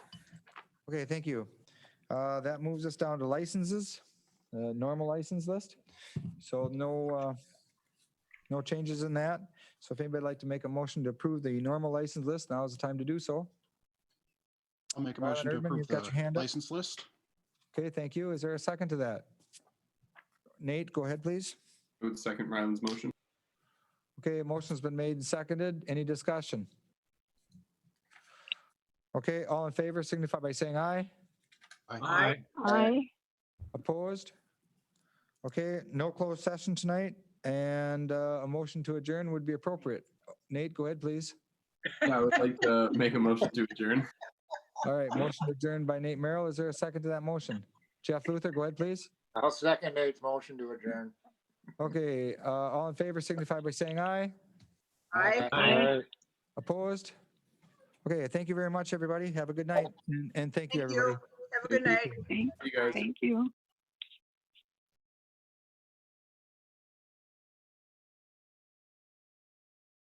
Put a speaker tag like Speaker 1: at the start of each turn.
Speaker 1: Okay, thank you. Uh, That moves us down to licenses, uh, normal license list. So no, uh, no changes in that. So if anybody'd like to make a motion to approve the normal license list, now is the time to do so.
Speaker 2: I'll make a
Speaker 1: Rylan
Speaker 2: motion to
Speaker 1: Erdman,
Speaker 2: approve
Speaker 1: you've got your
Speaker 2: the
Speaker 1: hand up.
Speaker 2: license list.
Speaker 1: Okay, thank you. Is there a second to that? Nate, go ahead, please.
Speaker 3: I would second Ryland's motion.
Speaker 1: Okay, a motion's been made and seconded. Any discussion? Okay, all in favor signify by saying aye.
Speaker 2: Aye.
Speaker 4: Aye.
Speaker 1: Opposed? Okay, no closed session tonight, and uh, a motion to adjourn would be appropriate. Nate, go ahead, please.
Speaker 3: I would like to make a motion to adjourn.
Speaker 1: All right, motion adjourned by Nate Merrill. Is there a second to that motion? Jeff Luther, go ahead, please.
Speaker 5: I'll second Nate's motion to adjourn.
Speaker 1: Okay, uh, all in favor signify by saying aye.
Speaker 4: Aye.
Speaker 1: Opposed? Okay, thank you very much, everybody. Have a good night, and- and thank you,
Speaker 6: Thank you.
Speaker 1: everybody.
Speaker 6: Have a good night.
Speaker 3: You guys.
Speaker 4: Thank you.